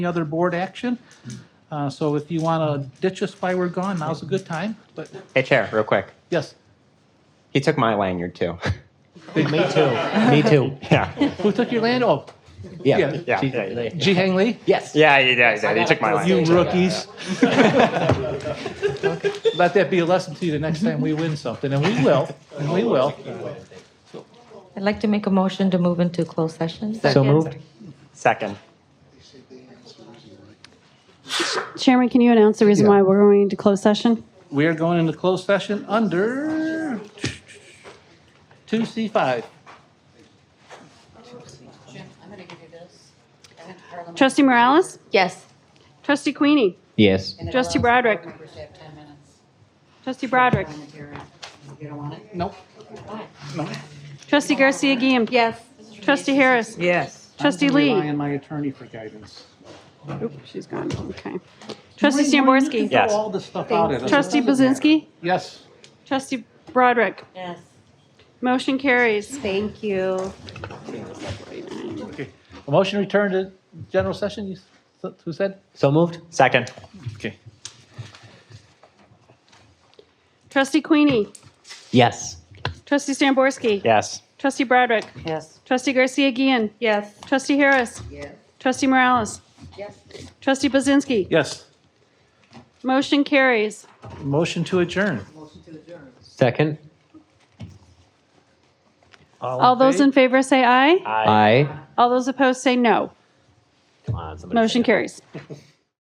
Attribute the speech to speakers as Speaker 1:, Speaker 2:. Speaker 1: any other board action. Uh, So if you want to ditch us while we're gone, now's a good time, but
Speaker 2: Hey, Chair, real quick.
Speaker 1: yes.
Speaker 2: He took my lanyard too.
Speaker 3: Me too. Me too.
Speaker 2: yeah.
Speaker 1: Who took your land? Oh,
Speaker 2: Yeah.
Speaker 1: Yeah.
Speaker 2: Yeah. Yeah.
Speaker 1: Ji Hang Lee?
Speaker 3: Yes.
Speaker 2: Yeah. yeah, yeah, He took my
Speaker 1: You
Speaker 2: lanyard.
Speaker 1: rookies. Let that be a lesson to you the next time we win something, and we will, and we will.
Speaker 4: I'd like to make a motion to move into closed session.
Speaker 3: So moved.
Speaker 2: Second.
Speaker 5: Chairman, can you announce the reason why we're going into closed session?
Speaker 1: We are going into closed session under 2C5.
Speaker 5: Trustee Morales?
Speaker 4: Yes.
Speaker 5: Trustee Queenie?
Speaker 3: Yes.
Speaker 5: Trustee Broderick? Trustee Broderick?
Speaker 1: Nope.
Speaker 5: Trustee Garcia Guillen?
Speaker 4: Yes.
Speaker 5: Trustee Harris?
Speaker 6: Yes.
Speaker 5: Trustee
Speaker 7: rely
Speaker 5: Lee?
Speaker 7: on my attorney for guidance.
Speaker 5: Oop, She's gone, okay. Trustee Stamborski?
Speaker 1: Throw
Speaker 2: Yes.
Speaker 1: all this stuff out at us.
Speaker 5: Trustee Buzinski?
Speaker 1: Yes.
Speaker 5: Trustee Broderick?
Speaker 4: Yes.
Speaker 5: Motion carries.
Speaker 4: Thank you.
Speaker 1: A motion to return to general session, you, s- who said?
Speaker 3: So moved.
Speaker 2: Second.
Speaker 1: Okay.
Speaker 5: Trustee Queenie?
Speaker 3: Yes.
Speaker 5: Trustee Stamborski?
Speaker 2: Yes.
Speaker 5: Trustee Broderick?
Speaker 4: Yes.
Speaker 5: Trustee Garcia Guillen?
Speaker 4: Yes.
Speaker 5: Trustee Harris?
Speaker 6: Yes.
Speaker 5: Trustee Morales?
Speaker 6: Yes.
Speaker 5: Trustee Buzinski?
Speaker 1: Yes.
Speaker 5: Motion carries.
Speaker 1: Motion to adjourn.
Speaker 6: Motion to adjourn.
Speaker 3: Second.
Speaker 5: All those in favor say aye.
Speaker 3: Aye.
Speaker 5: All those opposed say no.
Speaker 3: Come on, somebody.
Speaker 5: Motion carries.